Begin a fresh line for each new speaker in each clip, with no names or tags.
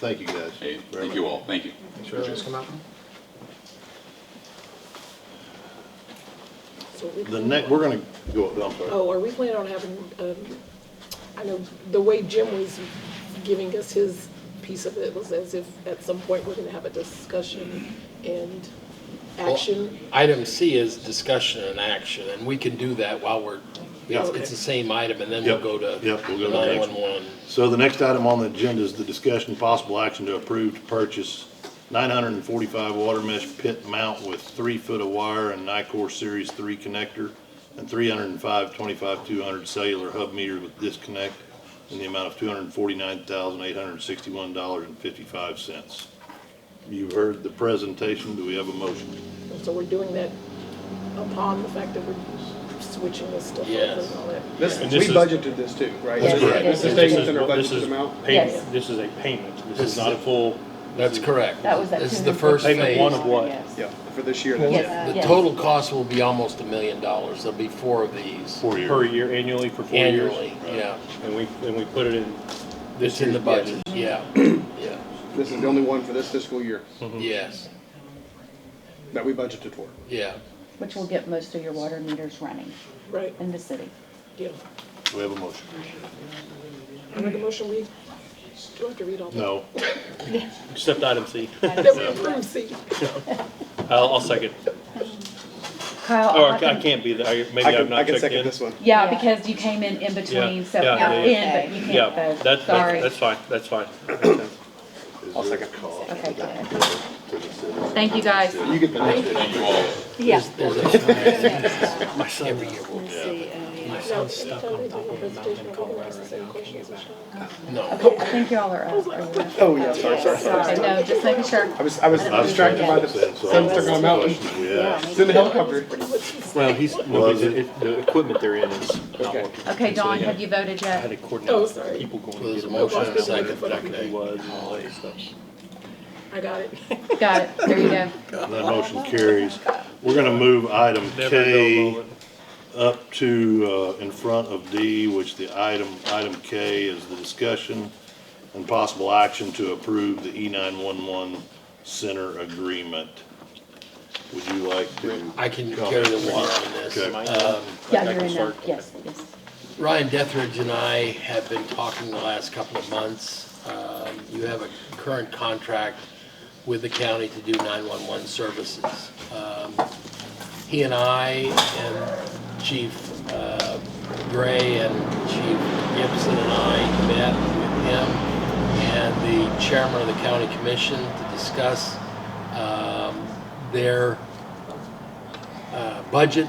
Thank you, guys.
Hey,
very
thank you
much.
all, thank you.
Sure, just come out.
So we-
The next, we're gonna go, I'm sorry.
Oh, are we planning on having, um, I know the way Jim was giving us his piece of it was as if at some point we're gonna have a discussion and action.
Item C is discussion and action, and we can do that while we're, it's it's the same item, and then we'll
Yep,
go to
yep, we'll go to the next one.
911.
So the next item on the agenda is the discussion and possible action to approve to purchase 945 water mesh pit mount with three foot of wire and Nycor Series 3 connector and 305 25200 cellular hub meters with disconnect in the amount of $249,861.55. You've heard the presentation. Do we have a motion?
And So we're doing that upon the fact that we're switching this stuff up
Yes.
and all that.
This,
And
we
this is-
budgeted this too, right?
That's
This-
correct.
This is
This
staying
is-
within our
this
budgeted
is
amount.
payment.
Yes.
This is a payment, this
This
is
is
not a
a-
full.
That's correct.
That was that.
This is the first phase.
Payment one of what?
Yes.
Yeah, for this year. that's it.
Uh, Yes,
The
yes.
total cost will be almost a million dollars. There'll be four of these
Four
Per year annually for four years.
annually, yeah.
And we, and we put it in,
It's in the budget, yeah,
Mm-hmm.
yeah,
This is the only one for this fiscal year
Mm-hmm.
yes,
that we budgeted for.
yeah.
Which will get most of your water meters running
Right,
in the city.
yeah.
We have a motion.
I make a motion, we, do I have to read all that?
No.
except item C.
That we approve, see,
I'll, I'll second.
Kyle, I'll
Or Oh, I
have
ca- I
them-
can't be there, I-
I
maybe I've
can, I
not
can
checked
second
in.
this one.
Yeah,
Yeah.
because you came in in between, so
yeah,
you're in,
yeah,
but you
Yeah,
can't vote,
that's,
sorry.
that's fine, that's fine.
I'll
second.
Okay, go ahead. Thank you, guys.
You get the next.
Thank you all.
Yeah.
Every year we'll,
now, anytime they do a presentation, we're gonna ask the same questions, Michelle.
no.
Okay, I think y'all are up. or whatever.
Oh, yeah, sorry, sorry, sorry.
Sorry, no, just making sure.
I was, I was distracted by the sunset on the mountain.
Yeah.
It's in the helicopter.
Well, he's,
Well, he's- it-
the equipment they're in is
not Okay. working.
Okay, Dawn, have you voted
I had
yet?
to
Oh,
coordinate
sorry.
people going.
There's a
to
motion and a second, but
He
okay.
was and all that stuff.
I got it.
Got it, there you go.
That motion carries. We're gonna move item
Never know,
K
Roland.
up to, uh, in front of D, which the item, item K is the discussion and possible action to approve the E nine-one-one center agreement. Would you like to?
I can carry the water on this. Um,
Okay.
Yeah, you're in now, yes, yes.
Ryan Dethridge and I have been talking the last couple of months. Um, You have a current contract with the county to do 911 services. Um, He and I and Chief uh, Gray and Chief Gibson and I met with him and the chairman of the county commission to discuss um, their uh, budget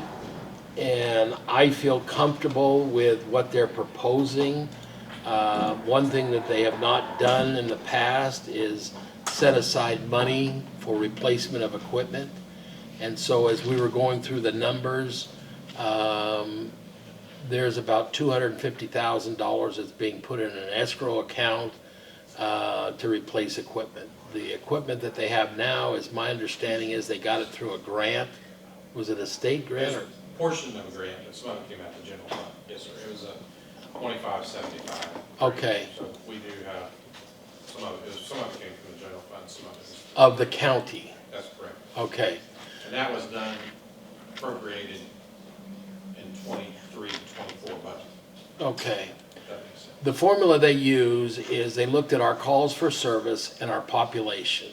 and I feel comfortable with what they're proposing. Uh, One thing that they have not done in the past is set aside money for replacement of equipment. And so as we were going through the numbers, um, there's about $250,000 that's being put in an escrow account uh, to replace equipment. The equipment that they have now, is my understanding is they got it through a grant. Was it a state grant or?
portion of a grant, but some of it came out of the general fund, yes, sir, it was a twenty-five seventy-five.
Okay,
So we do have, some of it, some of it came from the general fund, some of it was,
of the county,
that's correct.
okay,
And that was done appropriated in 23, 24 budget,
okay.
if that makes sense.
The formula they use is they looked at our calls for service and our population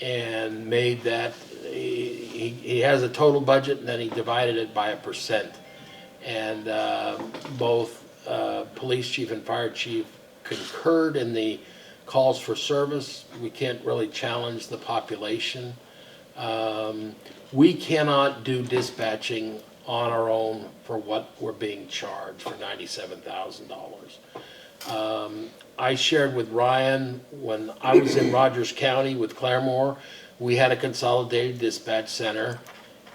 and made that, he, he- he has a total budget and then he divided it by a percent. And uh, both uh, police chief and fire chief concurred in the calls for service. We can't really challenge the population. Um, We cannot do dispatching on our own for what we're being charged for ninety-seven thousand dollars. Um, I shared with Ryan when I was in Rogers County with Claremore, we had a consolidated dispatch center.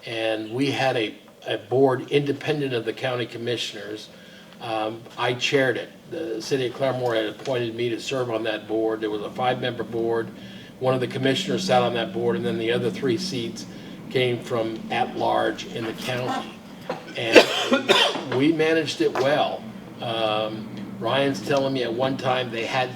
And we had a, a board independent of the county commissioners. Um, I chaired it. The city of Claremore had appointed me to serve on that board. There was a five-member board. One of the commissioners sat on that board, and then the other three seats came from at-large in the county. And we managed it well. Um, Ryan's telling me at one time they had